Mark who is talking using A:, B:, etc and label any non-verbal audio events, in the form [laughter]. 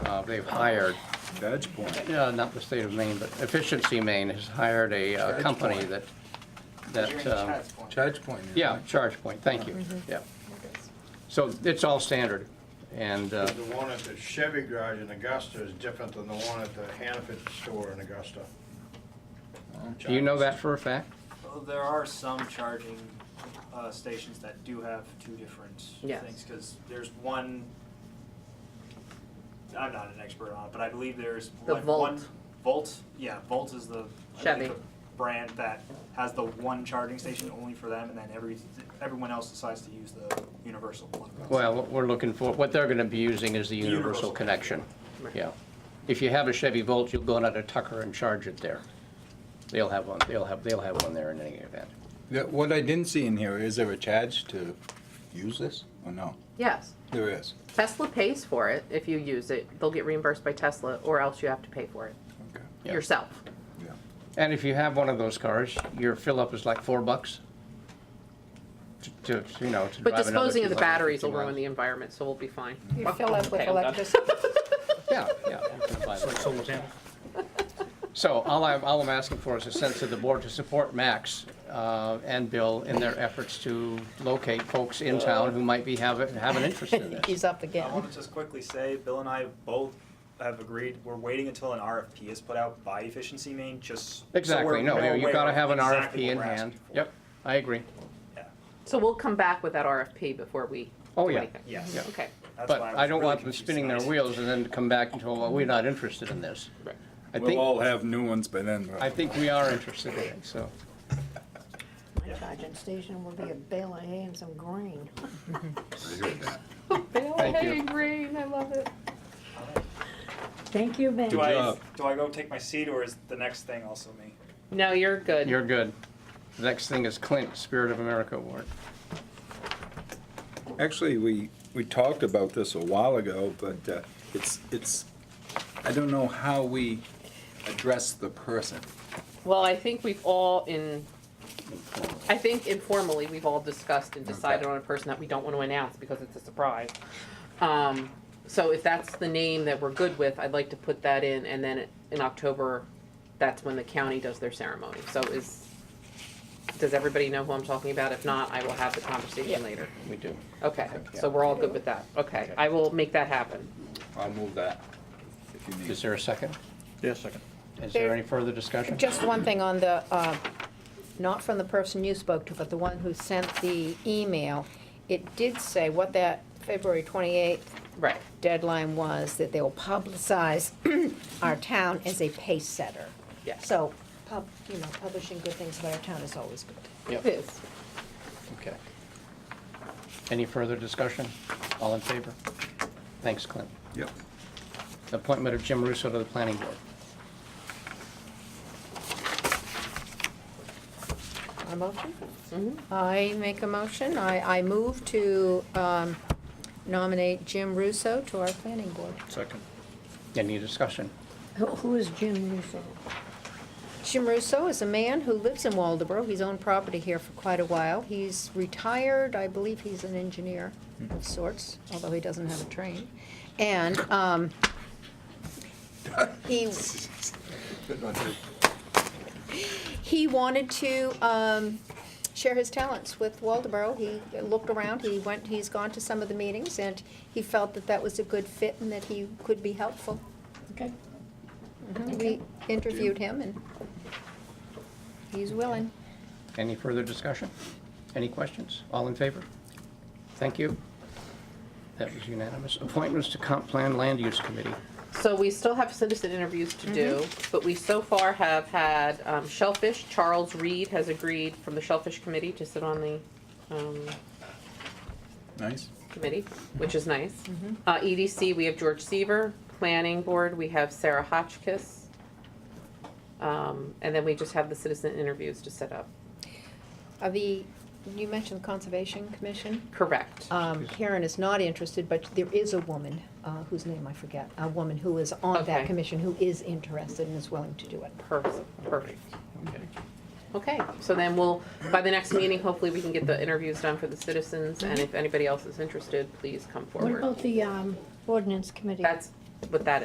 A: uh, they've hired,
B: Badge point.
A: yeah, not the state of Maine, but Efficiency Maine has hired a uh,
B: Charge
A: company
B: point.
A: that,
C: You're
A: that,
C: in
A: um,
C: Chad's point.
B: Charge point. isn't
A: yeah,
B: it?
A: charge point, thank you, yeah. So it's all standard, and, uh,
D: The one at the Chevy garage in Augusta is different than the one at the Hannaford store in Augusta.
A: do you know that for a fact?
C: Well, There are some charging uh, stations that do have two different
E: Yes.
C: things, because there's one, I'm not an expert on it, but I believe there's
E: The
C: like one.
E: Volt.
C: Volt, yeah, Volt is the. I think
E: Chevy.
C: the Brand that has the one charging station only for them, and then every, everyone else decides to use the universal one.
A: Well, what we're looking for, what they're gonna be using is the
C: The universal
A: universal connection,
E: Right.
A: yeah. If you have a Chevy Volt, you'll go down to Tucker and charge it there. They'll have one, they'll have, they'll have one there in any event.
B: Yeah, What I didn't see in here, is there a charge to use this or no?
E: Yes.
B: There is.
E: Tesla pays for it if you use it. They'll get reimbursed by Tesla or else you have to pay for it
B: Okay.
A: Yeah.
E: yourself.
B: Yeah.
A: And if you have one of those cars, your fill-up is like four bucks to, to, you know, to
E: But
A: drive another
E: disposing of the
A: 250
E: batteries will ruin
A: miles.
E: the environment, so we'll be fine.
F: You fill up with
E: Okay, I'm done.
F: electricity.
A: Yeah, yeah. you can buy those. So all I'm, all I'm asking for is a sense of the board to support Max uh, and Bill in their efforts to locate folks in town who might be, have, have an interest
E: [laughs]
A: in
C: [laughs]
A: this.
F: He's up
C: I
F: again.
C: want to just quickly say, Bill and I both have agreed, we're waiting until an RFP is put out by Efficiency Maine, just. so we're-
A: Exactly, no,
C: we're
A: you've
C: aware
A: got to
C: of
A: have an RFP
C: exactly what
A: in
C: we're
A: hand.
C: asking for.
A: Yep, I agree.
C: Yeah.
E: So we'll come back with that RFP before we
A: Oh,
E: do
A: yeah.
E: anything.
C: Yes.
A: Yeah.
E: Okay.
C: That's
A: But
C: why
A: I
C: was
A: don't
C: really
A: want them
C: confused
A: spinning their
C: tonight.
A: wheels and then come back and tell, well, we're not interested in this. I
B: We'll
A: think,
B: all have new ones by then. but-
A: I think we are interested in it, so.
F: My charging station will be a bale of hay and some grain.
B: I heard that.
F: Bale of
A: Thank you.
F: hay and grain, I love it. Thank you, Ben.
C: Do I,
B: job.
C: do I go take my seat or is the next thing also me?
E: No, you're good.
A: You're good. The next thing is Clint, Spirit of America Award.
B: Actually, we, we talked about this a while ago, but uh, it's, it's, I don't know how we address the person.
E: Well, I think we've all in, I think informally, we've all discussed and decided
B: Okay.
E: on a person that we don't want to announce because it's a surprise. Um, so if that's the name that we're good with, I'd like to put that in, and then in October, that's when the county does their ceremony. So is, does everybody know who I'm talking about? If not, I will have the conversation later.
A: We do.
E: Okay, so we're all good with that. Okay, I will make that happen.
B: I'll move that if you need.
A: Is there a second?
G: Yes, second.
A: Is there any further discussion?
F: Just one thing on the, uh, not from the person you spoke to, but the one who sent the email. It did say what that February 28th
E: Right.
F: deadline was, that they will publicize [clears throat] our town as a pace setter.
E: Yeah.
F: So, pub, you know, publishing good things about our town is always good.
A: Yep.
E: It is.
A: Okay. Any further discussion? All in favor? Thanks, Clint.
B: Yep.
A: Appointment of Jim Russo to the Planning Board.
F: A motion? I make a motion. I, I move to um, nominate Jim Russo to our planning board.
G: Second.
A: Any discussion?
F: Who is Jim Russo? Jim Russo is a man who lives in Waldeboro. He's owned property here for quite a while. He's retired, I believe he's an engineer of sorts, although he doesn't have a train. And um, he, he wanted to um, share his talents with Waldeboro. He looked around, he went, he's gone to some of the meetings, and he felt that that was a good fit and that he could be helpful.
H: Okay.
F: We interviewed him and he's willing.
A: Any further discussion? Any questions? All in favor? Thank you. That was unanimous. Appointments to Comp Plan Land Use Committee.
E: So we still have citizen interviews to do, but we so far have had um, Shellfish, Charles Reed has agreed from the Shellfish Committee to sit on the um,
B: Nice.
E: committee, which is nice. Uh, EDC, we have George Seaver, Planning Board, we have Sarah Hotchkiss. Um, And then we just have the citizen interviews to set up.
F: Uh, the, you mentioned the Conservation Commission.
E: Correct.
F: Um, Karen is not interested, but there is a woman, uh, whose name I forget, a woman who is on that
E: Okay.
F: commission who is interested and is willing to do it.
E: Perfect, perfect. Okay, so then we'll, by the next meeting, hopefully we can get the interviews done for the citizens. And if anybody else is interested, please come
H: What
E: forward.
H: about the um, ordinance committee?
E: That's what that is.